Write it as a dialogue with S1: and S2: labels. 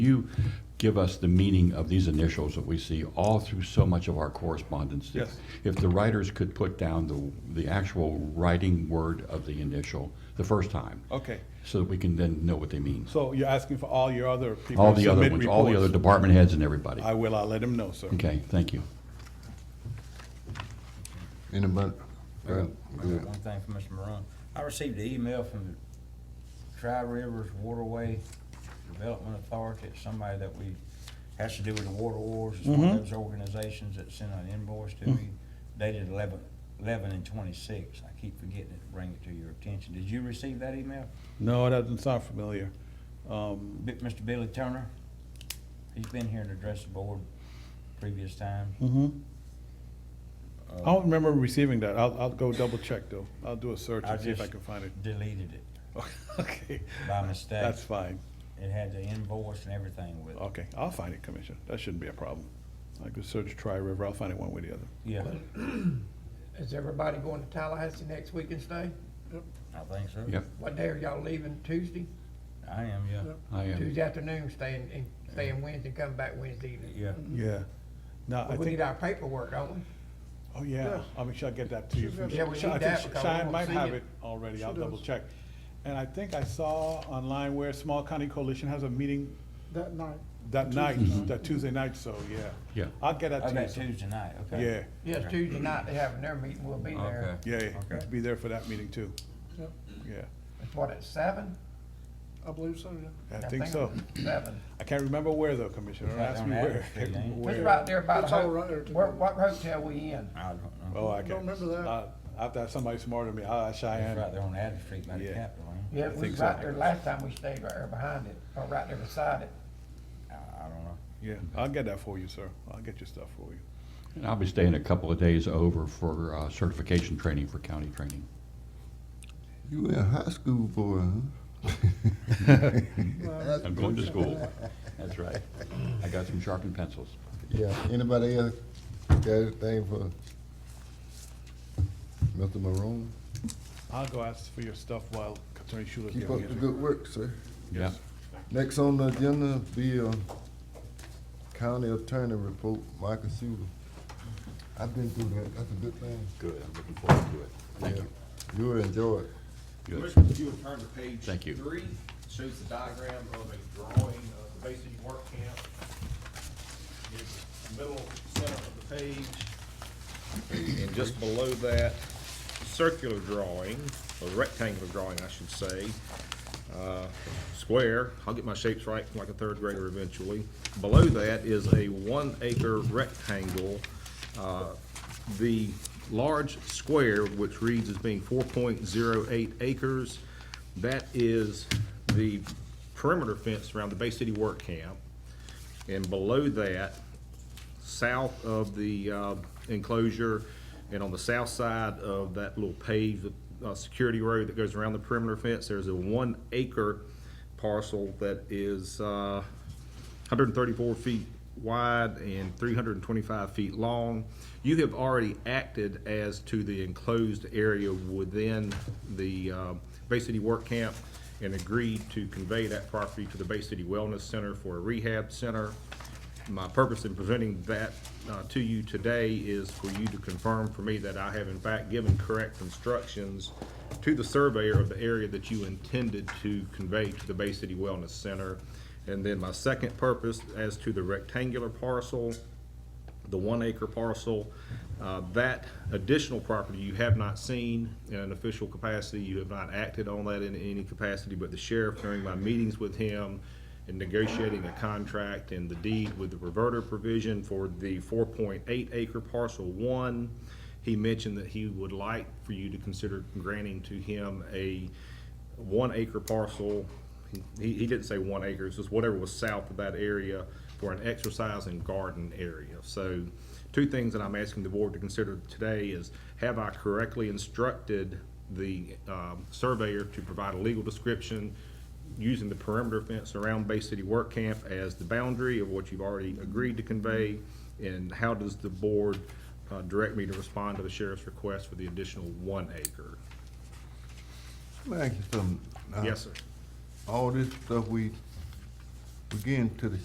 S1: You give us the meaning of these initials that we see all through so much of our correspondence.
S2: Yes.
S1: If the writers could put down the, the actual writing word of the initial the first time,
S2: Okay,
S1: so that we can then know what they mean.
S2: so you're asking for all your other people
S1: All
S2: to
S1: the other
S2: submit
S1: ones, all the other
S2: reports?
S1: department heads and everybody.
S2: I will, I'll let him know, sir.
S1: Okay, thank you.
S3: In a month.
S4: I got One thing for Mr. Moran. I received an email from the Tri Rivers Waterway Development Authority, it's somebody that we, has to do with the water wars, it's
S2: Mm-hmm.
S4: one of those organizations that sent an invoice to me dated eleven, eleven and twenty-six. I keep forgetting to bring it to your attention. Did you receive that email?
S2: No, that doesn't sound familiar. Um,
S4: Bi- Mr. Billy Turner? He's been here and addressed the board previous times.
S2: Mm-hmm. I don't remember receiving that. I'll, I'll go double check though. I'll do a search
S4: I
S2: and see if I
S4: just
S2: can find it.
S4: Deleted it
S2: Okay,
S4: by mistake.
S2: that's fine.
S4: It had the invoice and everything with it.
S2: Okay, I'll find it, Commissioner. That shouldn't be a problem. I could search Tri River. I'll find it one way or the other.
S4: Yeah,
S5: Is everybody going to Tallahassee next week and stay?
S4: I think so.
S1: Yep,
S5: What day are y'all leaving? Tuesday?
S4: I am, yeah.
S1: I uh, am.
S5: Tuesday afternoon, staying, and staying Wednesday, come back Wednesday evening.
S4: Yeah,
S2: Yeah. No, I
S5: But we
S2: think,
S5: need our paperwork, don't we?
S2: oh yeah, I'll make sure I get that to you. from-
S5: Yeah, we
S2: Sh-
S5: need
S2: I
S5: that
S2: think
S5: because we
S2: Cheyenne
S5: won't
S2: might
S5: see
S2: have it
S5: it.
S2: already.
S6: She
S2: I'll
S6: does.
S2: double check. And I think I saw online where Small County Coalition has a meeting
S6: that night.
S2: That night, that Tuesday night, so, yeah.
S1: Yeah.
S2: I'll get that
S4: I got
S2: to you.
S4: Tuesday night,
S2: so-
S4: okay.
S2: Yeah,
S5: Yes, Tuesday night, they have their meeting, we'll be there.
S4: Okay.
S2: yeah, yeah,
S4: Okay.
S2: be there for that meeting too,
S6: Yep,
S2: yeah.
S5: It's what, at seven?
S6: I believe so, yeah.
S2: I think so.
S5: Seven.
S2: I can't remember where though, Commissioner, don't
S4: Right
S2: ask
S4: on
S2: me where.
S4: Adams Street, ain't it?
S5: It's
S2: where.
S5: right there by the,
S6: It's all
S5: ho-
S6: right there.
S5: where, what hotel we in?
S4: I don't know.
S2: Oh, I
S6: Don't
S2: can't.
S6: remember that.
S2: I'll- I'll have to have somebody smarter than me, I'll ask
S4: It's right
S2: Cheyenne.
S4: there on Adams Street by the
S2: Yeah.
S4: Capitol, ain't
S5: Yeah,
S2: I
S5: it
S2: think
S5: was
S2: so.
S5: right there last time we stayed, right there behind it, or right there beside it.
S4: it? I, I don't know.
S2: Yeah, I'll get that for you, sir, I'll get your stuff for you.
S1: And I'll be staying a couple of days over for uh, certification training, for county training.
S3: You in high school boy, huh?
S1: I'm going to school. That's right. I got some sharpened pencils.
S3: Yeah, anybody else got anything for Mr. Maroon?
S2: I'll go ask for your stuff while Attorney Schuler
S3: Keep
S2: gets
S3: up the
S2: it.
S3: good work, sir.
S1: Yeah.
S3: Next on the agenda be uh, county attorney report, Michael Shula. I've been through that, that's a good thing.
S1: Good, I'm looking forward to it. Thank
S3: Yeah.
S1: you.
S3: You'll enjoy it.
S1: Good.
S7: Commissioner, if you would turn to page
S1: Thank you.
S7: three, shows the diagram of a drawing of the Basin Work Camp. Here's the Middle center of the page, and just below that, circular drawing, or rectangular drawing, I should say, uh, square, I'll get my shapes right like a third grader eventually. Below that is a one acre rectangle. Uh, The large square, which reads as being four point zero eight acres, that is the perimeter fence around the Bay City Work Camp. And below that, south of the uh, enclosure and on the south side of that little paved uh, security road that goes around the perimeter fence, there's a one acre parcel that is uh, 134 feet wide and 325 feet long. You have already acted as to the enclosed area within the uh, Bay City Work Camp and agreed to convey that property to the Bay City Wellness Center for a rehab center. My purpose in presenting that uh, to you today is for you to confirm for me that I have in fact given correct instructions to the surveyor of the area that you intended to convey to the Bay City Wellness Center. And then my second purpose, as to the rectangular parcel, the one acre parcel, uh, that additional property you have not seen in an official capacity, you have not acted on that in any capacity, but the sheriff during my meetings with him in negotiating a contract and the deed with the reverter provision for the four point eight acre parcel one, he mentioned that he would like for you to consider granting to him a one acre parcel, he, he didn't say one acre, it's just whatever was south of that area for an exercise and garden area. So, two things that I'm asking the board to consider today is, have I correctly instructed the, um, surveyor to provide a legal description using the perimeter fence around Bay City Work Camp as the boundary of what you've already agreed to convey? And how does the board, uh, direct me to respond to the sheriff's request for the additional one acre?
S3: Let me ask you something. Now,
S7: Yes, sir.
S3: All this stuff we We're getting to the